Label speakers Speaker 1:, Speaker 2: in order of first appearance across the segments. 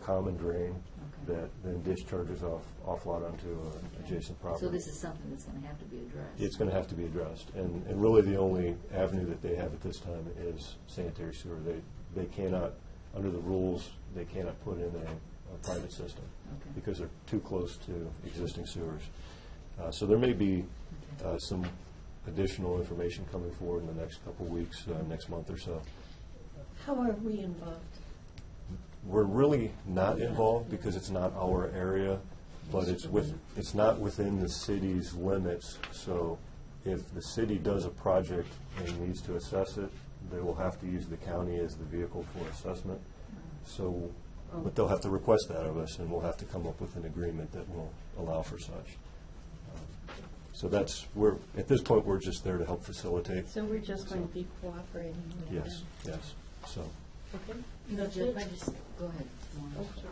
Speaker 1: common drain that then discharges off, offload onto uh, adjacent property.
Speaker 2: So this is something that's going to have to be addressed.
Speaker 1: It's going to have to be addressed, and, and really the only avenue that they have at this time is sanitary sewer. They, they cannot, under the rules, they cannot put in a, a private system
Speaker 2: Okay.
Speaker 1: because they're too close to existing sewers. Uh, So there may be uh, some additional information coming forward in the next couple of weeks, uh, next month or so.
Speaker 3: How are we involved?
Speaker 1: We're really not involved because it's not our area, but it's with, it's not within the city's limits. So if the city does a project and needs to assess it, they will have to use the county as the vehicle for assessment. So, but they'll have to request that of us, and we'll have to come up with an agreement that will allow for such. So that's, we're, at this point, we're just there to help facilitate.
Speaker 3: So we're just going to be cooperating with them?
Speaker 1: Yes, yes, so.
Speaker 3: Okay?
Speaker 2: No,
Speaker 3: That's
Speaker 2: Jeff,
Speaker 3: it? Oh,
Speaker 2: I just, go ahead. Warren.
Speaker 3: Okay.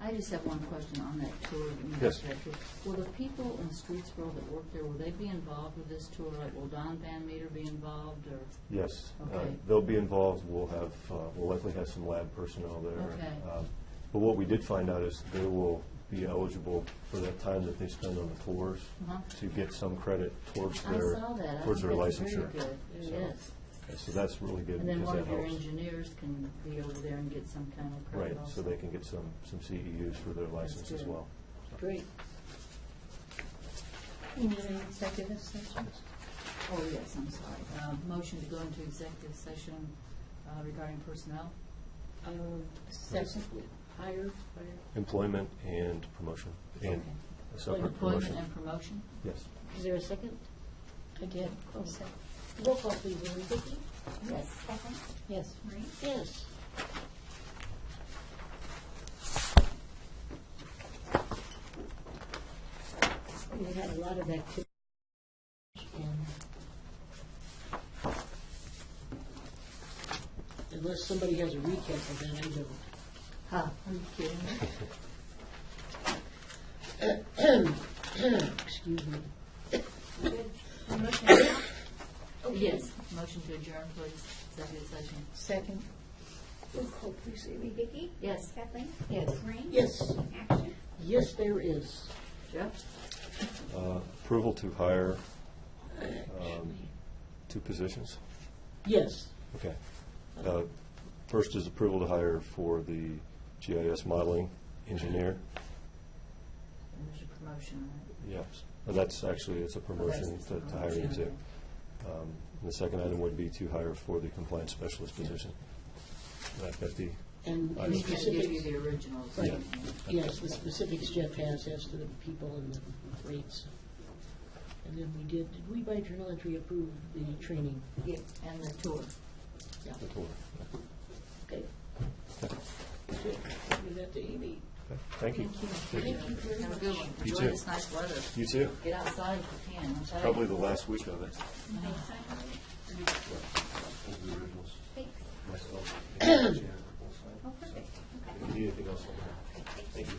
Speaker 2: I just have one question on that tour. of
Speaker 1: Yes.
Speaker 2: infrastructure. Will the people in Streetsboro that work there, will they be involved with this tour? Like, will Don Van Meter be involved, or?
Speaker 1: Yes, uh,
Speaker 2: Okay.
Speaker 1: they'll be involved, we'll have, uh, we'll likely have some lab personnel there.
Speaker 2: Okay.
Speaker 1: Um, But what we did find out is they will be eligible for that time that they spend on the tours
Speaker 2: Uh-huh.
Speaker 1: to get some credit towards
Speaker 2: I
Speaker 1: their,
Speaker 2: saw that. I
Speaker 1: towards their
Speaker 2: think that's very
Speaker 1: licensure.
Speaker 2: good.
Speaker 1: So-
Speaker 2: Yes.
Speaker 1: And So that's really good
Speaker 2: And then
Speaker 1: because
Speaker 2: one
Speaker 1: that
Speaker 2: of your
Speaker 1: helps.
Speaker 2: engineers can be over there and get some kind of credit
Speaker 1: Right, so
Speaker 2: also.
Speaker 1: they can get some, some CEUs for their license as
Speaker 2: good.
Speaker 1: well.
Speaker 2: Great.
Speaker 3: You need an executive session?
Speaker 2: Oh, yes, I'm sorry. Uh, Motion to go into executive session uh, regarding personnel.
Speaker 3: Um, Second, hire, fire.
Speaker 1: Employment and promotion, and a separate
Speaker 2: Employment
Speaker 1: promotion.
Speaker 2: and promotion.
Speaker 1: Yes,
Speaker 3: Is there a second? I did. Oh, second. Roll call, please, Amy. Vicki?
Speaker 2: Yes.
Speaker 3: Yes.
Speaker 2: Marie?
Speaker 3: Yes. We had a lot of activity. and Unless somebody has a recap of that, I don't.
Speaker 2: Huh, are you kidding me?
Speaker 3: Excuse me.
Speaker 2: Oh, Yes, motion to adjourn, please, executive session.
Speaker 3: Second.
Speaker 4: Roll call, please, Amy. Vicky?
Speaker 2: Yes.
Speaker 4: Kathleen?
Speaker 3: Yes.
Speaker 4: Maureen?
Speaker 3: Yes,
Speaker 4: Action?
Speaker 3: yes, there is.
Speaker 2: Jeff?
Speaker 1: Uh, approval to hire um, two positions.
Speaker 3: Yes.
Speaker 1: Okay. Uh, First is approval to hire for the GIS modeling engineer.
Speaker 2: And There's a promotion, right?
Speaker 1: Yes. Well, Uh, that's actually, it's a promotion to to hire him to. Um, and The second item would be to hire for the compliance specialist position. Uh, That that the,
Speaker 5: And
Speaker 1: I
Speaker 5: the
Speaker 2: He's going to give you
Speaker 5: specifics,
Speaker 2: the originals.
Speaker 5: Right. yes, the specifics Jeff has as to the people and the rates. And then we did, did we by journal entry approve the training?
Speaker 2: Yeah, And the tour.
Speaker 5: Yeah,
Speaker 1: the tour.
Speaker 5: okay. Give that to Amy.
Speaker 1: Okay. Thank you.
Speaker 2: Thank you. Have a good one.
Speaker 1: You
Speaker 2: Enjoy
Speaker 1: too.
Speaker 2: this nice weather.
Speaker 1: You too.
Speaker 2: Get outside if you can. I'm sorry.
Speaker 1: Probably the last week of it.
Speaker 4: Thanks.
Speaker 1: Myself. If
Speaker 4: Oh, perfect. Okay.
Speaker 1: you need anything else, let me know. Thank you.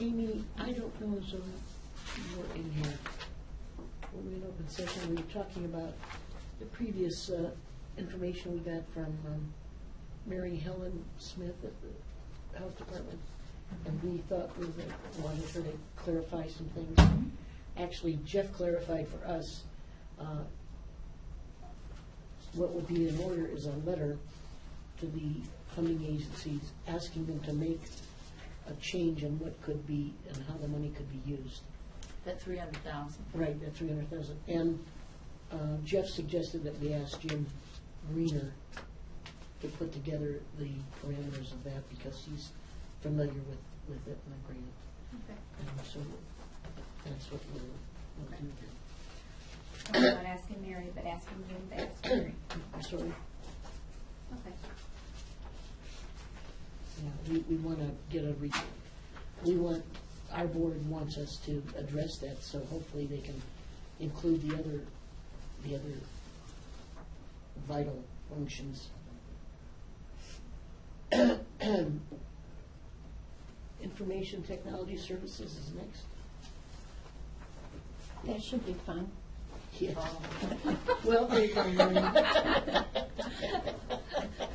Speaker 5: Amy, I don't know as though you were in here. When we were in open session, we were talking about the previous uh, information we got from um, Mary Helen Smith at the Health Department. And we thought we were- wanted her to clarify some things. Actually, Jeff clarified for us, uh, what would be in order is a letter to the funding agencies asking them to make a change in what could be and how the money could be used.
Speaker 2: That three hundred thousand.
Speaker 5: Right, at three hundred thousand. And uh, Jeff suggested that we ask Jim Greener to put together the parameters of that because he's familiar with, with it and agreed.
Speaker 4: Okay.
Speaker 5: And so that's what we'll, we'll do then.
Speaker 4: I'm not asking Mary, but asking you to ask Mary.
Speaker 5: I'm sorry,
Speaker 4: Okay.
Speaker 5: yeah, we, we want to get a re, we want, our board wants us to address that, so hopefully they can include the other, the other vital functions. Information Technology Services is next.
Speaker 3: That should be fun.
Speaker 5: Yes.
Speaker 2: Oh.
Speaker 5: Well, they can, um,